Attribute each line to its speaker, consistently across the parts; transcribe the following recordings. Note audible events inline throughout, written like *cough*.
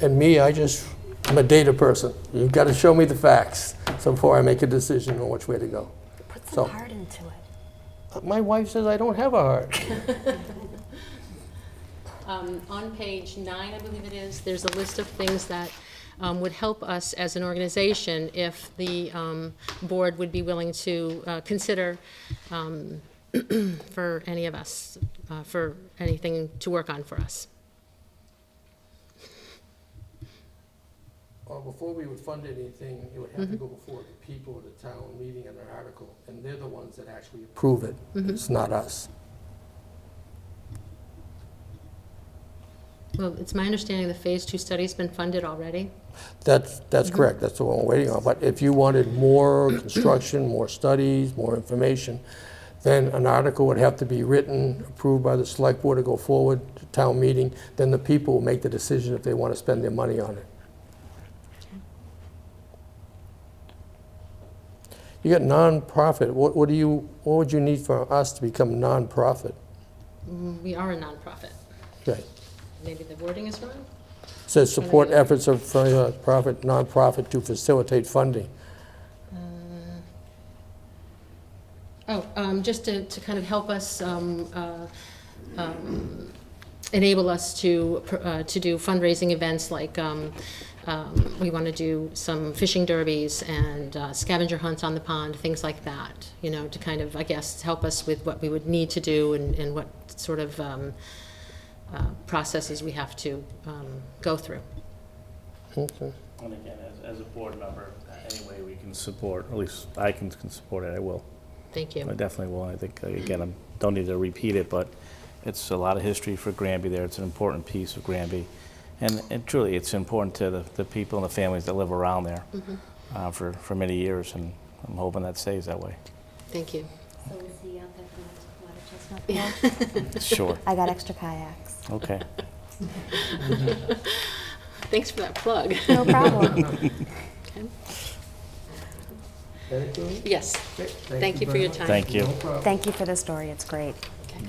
Speaker 1: And me, I just, I'm a data person. You've got to show me the facts so before I make a decision on which way to go.
Speaker 2: Put
Speaker 1: So-
Speaker 2: some heart into it.
Speaker 1: My wife says I don't have a heart.
Speaker 3: Um, On page nine, I believe it is, there's a list of things that um, would help us as an organization if the um, board would be willing to uh, consider um, *clears throat* for any of us, uh, for anything to work on for us.
Speaker 1: Well, before we would fund anything, it would have to go before the people of the town meeting in an article, and they're the ones that actually approve it. It's not us.
Speaker 3: Well, it's my understanding the Phase Two study's been funded already.
Speaker 1: That's, that's correct, that's what we're waiting on. But if you wanted more construction, more studies, more information, then an article would have to be written, approved by the select board to go forward to town meeting, then the people will make the decision if they want to spend their money on it. You got nonprofit, what, what do you, what would you need for us to become nonprofit?
Speaker 3: We are a nonprofit.
Speaker 1: Okay.
Speaker 3: Maybe the wording is wrong?
Speaker 1: Says support efforts of uh, profit, nonprofit to facilitate funding.
Speaker 3: Oh, um, just to, to kind of help us, um, uh, um, enable us to, pr- uh, to do fundraising events like, um, um, we want to do some fishing derbies and uh, scavenger hunts on the pond, things like that, you know, to kind of, I guess, help us with what we would need to do and, and what sort of, um, uh, processes we have to, um, go through.
Speaker 1: Okay.
Speaker 4: And again, as, as a board member, any way we can support, at least I can, can support it, I will.
Speaker 3: Thank you.
Speaker 4: I definitely will. I think, uh, again, I don't need to repeat it, but it's a lot of history for Granby there. It's an important piece of Granby. And, and truly, it's important to the, the people and the families that live around there
Speaker 3: Mm-hmm.
Speaker 4: uh, for, for many years, and I'm hoping that stays that *laughs* way.
Speaker 3: Thank you.
Speaker 2: So is he out there for the water chestnut?
Speaker 4: Sure.
Speaker 2: I got extra kayaks.
Speaker 4: Okay.
Speaker 3: Thanks for that plug. *laughs*
Speaker 2: *laughs* No problem.
Speaker 1: Okay,
Speaker 3: Yes, thank you for
Speaker 1: very
Speaker 3: your
Speaker 1: much.
Speaker 3: time.
Speaker 4: Thank you.
Speaker 1: No problem.
Speaker 2: Thank you for the story. It's great.
Speaker 3: Okay.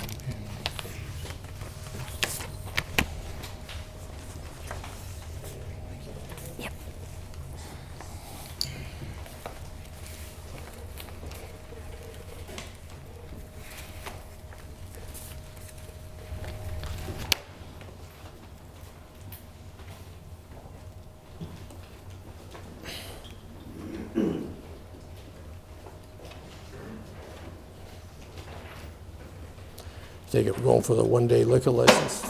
Speaker 1: Take it, we're going for the one-day liquor license.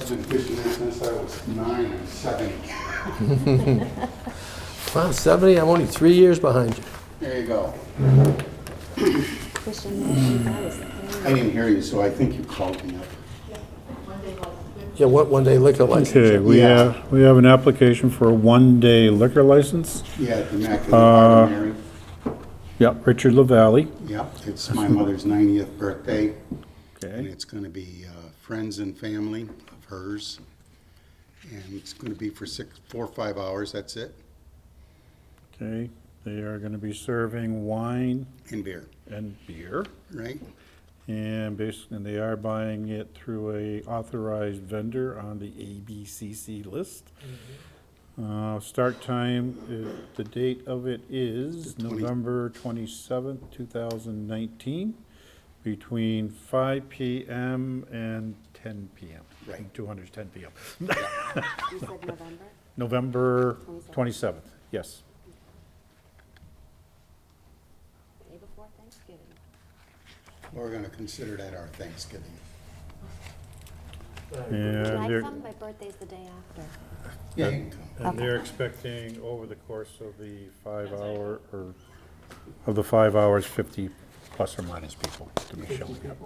Speaker 5: I've been fishing there since I was nine and seven.
Speaker 1: Wow, 70, I'm only three years behind you.
Speaker 5: There you go.
Speaker 2: Fishing, that was
Speaker 5: I didn't hear you, so I think you called me up.
Speaker 1: Yeah, what one-day liquor license?
Speaker 6: Okay, we
Speaker 5: Yeah.
Speaker 6: have, we have an application for a one-day liquor license.
Speaker 5: Yeah, at the Immaculate Heart of Mary.
Speaker 6: Yep, Richard LaValle.
Speaker 5: Yep, it's my mother's 90th birthday, and
Speaker 6: Okay.
Speaker 5: it's going to be uh, friends and family of hers. And it's going to be for six, four or five hours, that's it,
Speaker 6: Okay, they are gonna be serving wine
Speaker 5: and beer,
Speaker 6: and beer.
Speaker 5: right?
Speaker 6: And basically, and they are buying it through a authorized vendor on the ABCC list. Uh, start time, is- the date of it is November twenty-seventh, two thousand nineteen, between five PM and ten PM.
Speaker 5: Right.
Speaker 6: Two hundred is ten PM.
Speaker 2: You said November?
Speaker 6: November twenty-seventh, yes.
Speaker 2: Day before Thanksgiving.
Speaker 5: We're going to consider that our Thanksgiving.
Speaker 6: And
Speaker 2: Can I
Speaker 6: they're-
Speaker 2: come? My birthday's the day after.
Speaker 5: Yeah, you can come.
Speaker 6: And they're expecting over the course of the five hour, or, of the five hours, fifty plus or minus people to be showing up.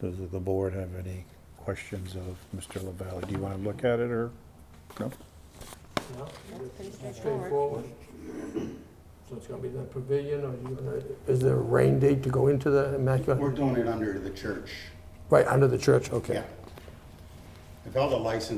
Speaker 6: Does the board have any questions of Mr. LaValle? Do you want to look at it, or, no?
Speaker 2: That's pretty
Speaker 1: Straightforward.
Speaker 2: straightforward.
Speaker 1: So it's going to be the pavilion, or you gonna- is there a rain date to go into the
Speaker 5: We're
Speaker 1: Immaculate?
Speaker 5: doing it under the church.
Speaker 1: Right, under the church, okay.
Speaker 5: Yeah. I've held a license